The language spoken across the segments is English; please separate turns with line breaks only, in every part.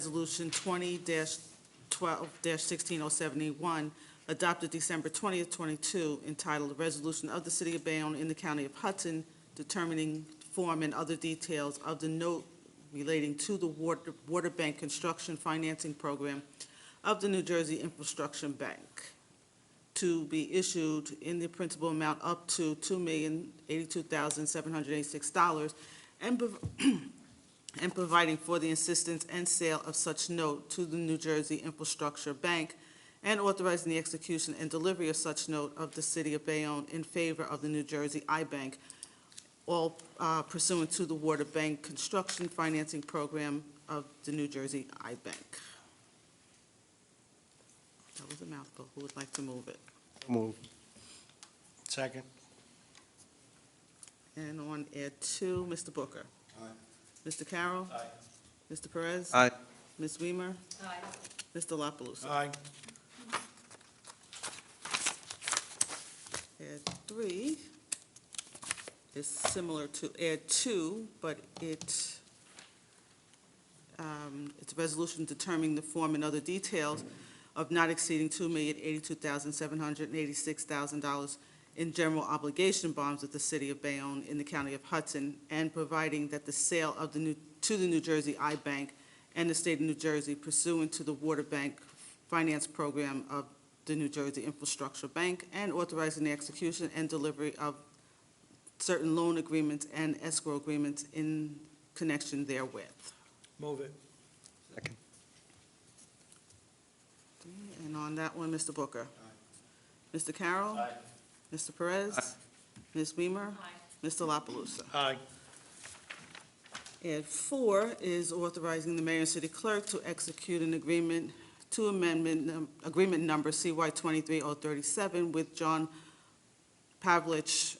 Resolution 20-12-16071, adopted December 20th, 22, entitled "A Resolution of the City of Bayonne in the County of Hudson Determining Form and Other Details of the Note Relating to the Water water Bank Construction Financing Program of the New Jersey Infrastructure Bank," to be issued in the principal amount up to $2,082,786, and prov- and providing for the assistance and sale of such note to the New Jersey Infrastructure Bank, and authorizing the execution and delivery of such note of the City of Bayonne in favor of the New Jersey I-Bank, all uh, pursuant to the Water Bank Construction Financing Program of the New Jersey I-Bank. That was a mouthful. Who would like to move it?
Move. Second.
And on add two, Mr. Booker. Aye. Mr. Carroll. Aye. Mr. Perez.
Aye.
Ms. Weimer.
Aye.
Mr. La Palusa?
Aye.
Add three is similar to add two, but it, um, it's a resolution determining the form and other details of not exceeding two million eighty-two thousand seven hundred and eighty-six thousand dollars in general obligation bonds of the city of Bayonne in the county of Hudson, and providing that the sale of the new, to the New Jersey I-Bank and the state of New Jersey pursuant to the Water Bank Finance Program of the New Jersey Infrastructure Bank and authorizing the execution and delivery of certain loan agreements and escrow agreements in connection therewith.
Move it. Second.
And on that one, Mr. Booker. Mr. Carroll. Mr. Perez. Ms. Weimer. Mr. La Palusa?
Aye.
And four is authorizing the mayor and city clerk to execute an agreement to amendment, num- agreement number CY 23037 with John Pavlich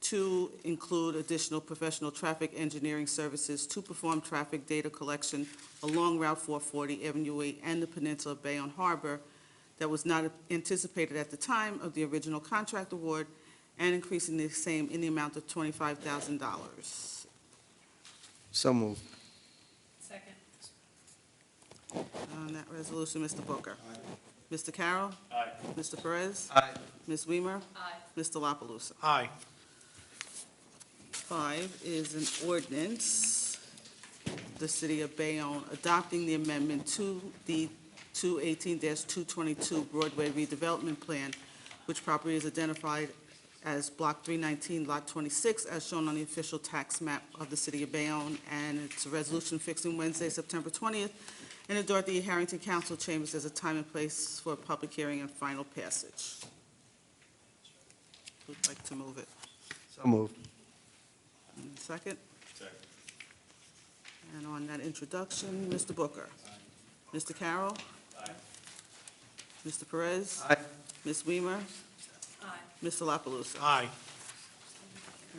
to include additional professional traffic engineering services to perform traffic data collection along Route 440, Avenue 8, and the Peninsula Bayonne Harbor that was not anticipated at the time of the original contract award, and increasing the same in the amount of $25,000.
So move.
Second.
On that resolution, Mr. Booker. Mr. Carroll. Mr. Perez.
Aye.
Ms. Weimer.
Aye.
Mr. La Palusa?
Aye.
Five is an ordinance, the City of Bayonne adopting the amendment to the 218-222 Broadway redevelopment plan, which property is identified as Block 319, Lot 26, as shown on the official tax map of the City of Bayonne, and it's a resolution fixing Wednesday, September 20th, in the Dorothy E. Harrington Council Chambers as a time and place for a public hearing and final passage. Who'd like to move it?
So move.
And Second? Second. And on that introduction, Mr. Booker. Mr. Carroll. Mr. Perez.
Aye.
Ms. Weimer.
Aye.
Mr. La Palusa?
Aye.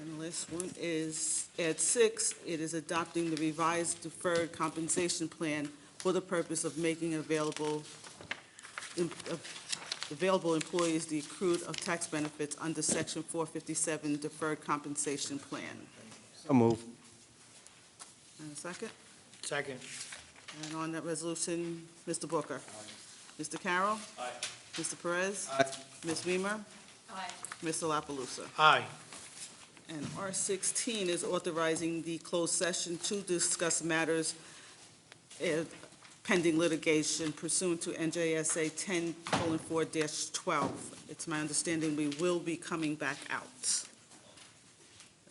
And the last one is, at six, it is adopting the revised deferred compensation plan for the purpose of making available, em- of available employees the accrued of tax benefits under Section 457 Deferred Compensation Plan.
So move.
And a second?
Second.
And on that resolution, Mr. Booker. Mr. Carroll.
Aye.
Mr. Perez.
Aye.
Ms. Weimer.
Aye.
Mr. La Palusa?
Aye.
And R sixteen is authorizing the closed session to discuss matters eh, pending litigation pursuant to NJSA ten four twelve. It's my understanding we will be coming back out.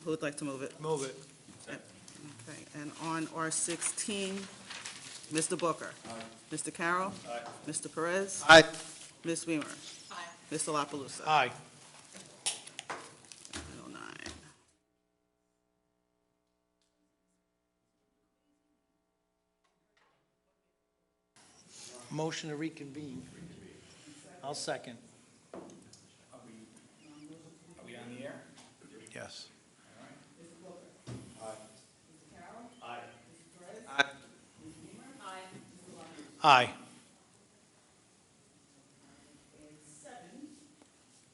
Who would like to move it?
Move it.
Okay, and on R sixteen, Mr. Booker? Mr. Carroll? Mr. Perez?
Aye.
Ms. Weimer?
Aye.
Mr. La Palusa?
Aye.
909.
Motion to reconvene. I'll second.
Are we on the air?
Yes.
Aye.
Aye.
Seven,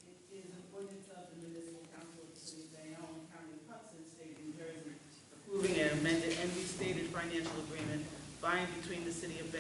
it is an ordinance of the municipal council of the city of Bayonne, County of Hudson, State of New Jersey, approving an amended and restated financial agreement by buying between the city of Bayonne